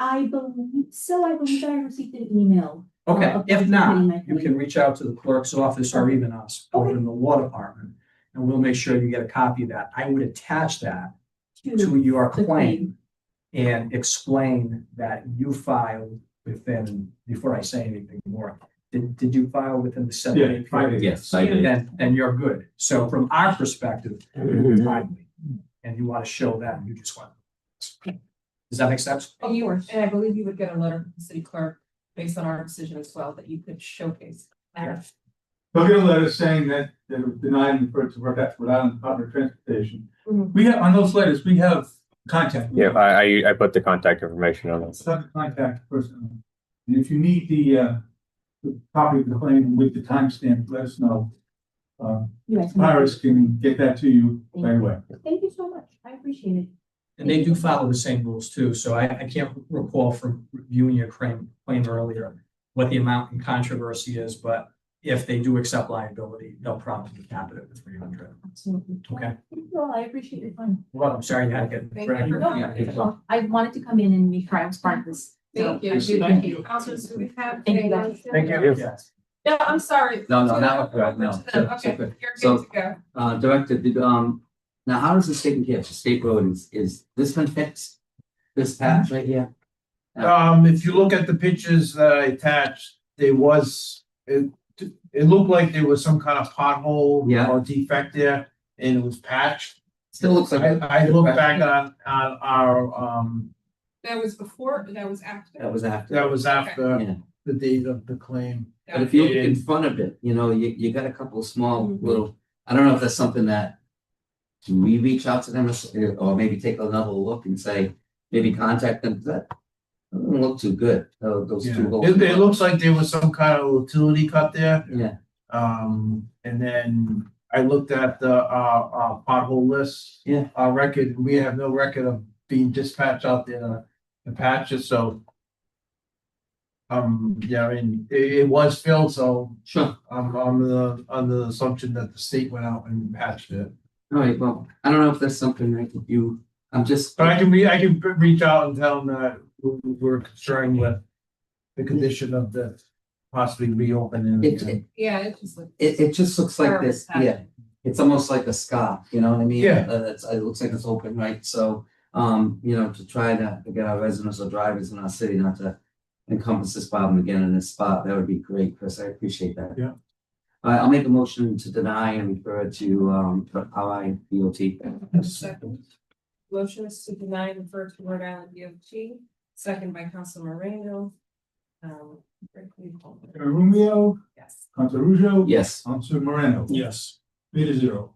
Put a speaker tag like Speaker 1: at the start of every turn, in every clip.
Speaker 1: I believe so, I believe I received an email. uh,
Speaker 2: Okay,
Speaker 1: of
Speaker 2: if not,
Speaker 1: participating my
Speaker 2: you
Speaker 1: committee.
Speaker 2: can reach out to the clerk's office or even us over in the law department. And we'll make sure you get a copy of that. I would attach that
Speaker 1: Mm-hmm.
Speaker 2: to your
Speaker 1: the
Speaker 2: claim and explain that you filed within, before I say anything more, did, did you file within the seven
Speaker 3: Yeah,
Speaker 2: day
Speaker 3: five
Speaker 2: period?
Speaker 3: days.
Speaker 4: Yes, I did.
Speaker 2: Then, then you're good. So from our perspective,
Speaker 4: Mm-hmm.
Speaker 2: you're timely. And you want to show that and you just want. Does that make sense?
Speaker 5: And you, and I believe you would get a letter from the city clerk based on our decision as well, that you could showcase. that.
Speaker 3: They'll get a letter saying that they were denied and referred to work at Rhode Island Department of Transportation.
Speaker 5: Mhm.
Speaker 3: We have, on those letters, we have contact.
Speaker 6: Yeah, I, I, I put the contact information on
Speaker 3: It's
Speaker 6: it.
Speaker 3: not the contact person. And if you need the, uh, the copy of the claim with the timestamp, let us know. Uh,
Speaker 1: Yes.
Speaker 3: Iris can get that to you right away.
Speaker 1: Thank you so much, I appreciate it.
Speaker 2: And they do follow the same rules too, so I, I can't recall from reviewing your claim, claim earlier what the amount in controversy is, but if they do accept liability, they'll promptly cap it at three hundred.
Speaker 1: Absolutely.
Speaker 2: Okay.
Speaker 1: Thank you all, I appreciate your time.
Speaker 2: Well, I'm sorry you had to get.
Speaker 5: Thank
Speaker 2: dragged.
Speaker 5: you.
Speaker 1: No,
Speaker 2: Yeah, it's all-
Speaker 1: I wanted to come in and make sure I was part of this. so
Speaker 5: Thank you.
Speaker 1: I do
Speaker 5: Thank you. Also, so we have.
Speaker 1: Thank you, guys.
Speaker 2: Thank you. Yes.
Speaker 5: No, I'm sorry.
Speaker 4: No, no, that was right, no.
Speaker 5: Okay, you're
Speaker 4: So-
Speaker 5: good to go.
Speaker 4: Uh, Director, did, um, now how is this taken care of? State road is, is this been fixed? This patch right here?
Speaker 7: Um, if you look at the pictures that I attached, there was, it, it looked like there was some kind of pothole
Speaker 4: Yeah.
Speaker 7: or defect there, and it was patched.
Speaker 4: Still looks like.
Speaker 7: I, I looked back on, on our, um,
Speaker 5: That was before, that was after.
Speaker 4: That was after,
Speaker 7: that was
Speaker 4: Yeah.
Speaker 7: after the date of the claim.
Speaker 4: but if you look in front of it, you know, you, you got a couple of small
Speaker 7: Mm-hmm.
Speaker 5: Mhm.
Speaker 4: little, I don't know if that's something that. Can we reach out to them or s- or maybe take another look and say, maybe contact them, that doesn't look too good, tho- those two. little-
Speaker 7: It, it looks like there was some kind of utility cut there.
Speaker 4: Yeah.
Speaker 7: Um, and then I looked at the, uh, uh, pothole list.
Speaker 4: Yeah.
Speaker 7: Our record, we have no record of being dispatched out there to- to patch it, so. Um, yeah, I mean, it, it was filled, so
Speaker 4: Sure.
Speaker 7: I'm, I'm the, under the assumption that the state went out and patched it.
Speaker 4: All right, well, I don't know if that's something that you, I'm just,
Speaker 7: But I can re, I can re- reach out and tell them that we- we're concerned with the condition of the possibly reopening.
Speaker 4: it, it,
Speaker 5: Yeah, it just looked.
Speaker 4: it it just looks like this, yeah. It's almost like a scar, you know what I mean?
Speaker 7: Yeah.
Speaker 4: Uh, it's, it looks like it's open, right? So, um, you know, to try to get our residents or drivers in our city not to encompass this problem again in this spot, that would be great, Chris, I appreciate that.
Speaker 7: Yeah.
Speaker 4: All right, I'll make a motion to deny and refer to, um, our DOT.
Speaker 5: Second. Motion is to deny and refer to Rhode Island DOT, second by Council Moreno. Um, Rick, will you call the roll?
Speaker 3: Romeo,
Speaker 5: yes.
Speaker 3: Council Ruzo.
Speaker 4: Yes,
Speaker 3: Council Moreno.
Speaker 2: Yes.
Speaker 3: Three to zero.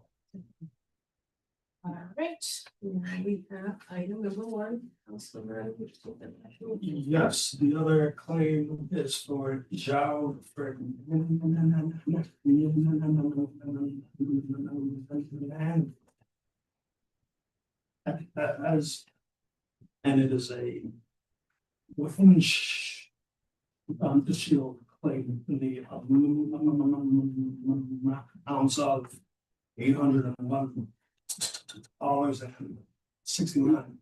Speaker 5: All right, now we have item number one, Council Moreno. which is the national-
Speaker 8: Yes, the other claim is for Zhao for. As. And it is a. Within. sh- Um, the shield claim, the. um, Ounce of eight hundred and one. Dollars and sixty nine.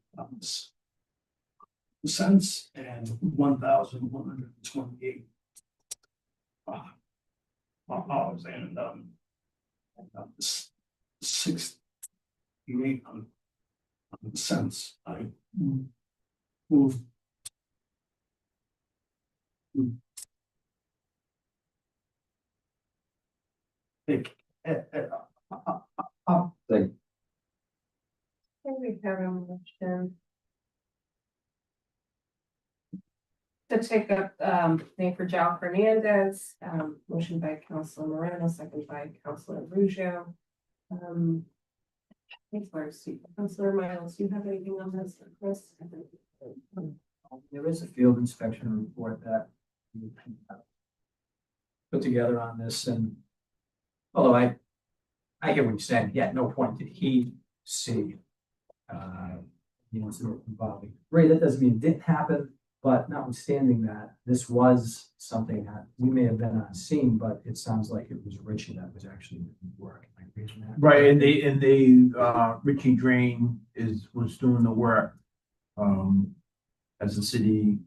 Speaker 8: Cents and one thousand one hundred and twenty-eight. Dollars and, um. uh, s- Six. Eight hundred. Cents, I. Move. Take, eh, eh, uh, uh,
Speaker 5: Can we have a motion? To take up, um, name for Jao Fernandez, um, motion by Council Moreno, second by Council Abruzzo. Um. Thanks, Marcus. Councilor Miles, do you have anything on this, Chris?
Speaker 2: There is a field inspection report that we put together on this and although I, I hear what you're saying, yeah, at no point did he see uh, you know, sort of involving, right, that doesn't mean it didn't happen, but notwithstanding that, this was something that we may have been on scene, but it sounds like it was Richie that was actually doing the work. Am I reading that
Speaker 7: Right, and they, and they, uh, Richie Drain is, was doing the work. Um, as a city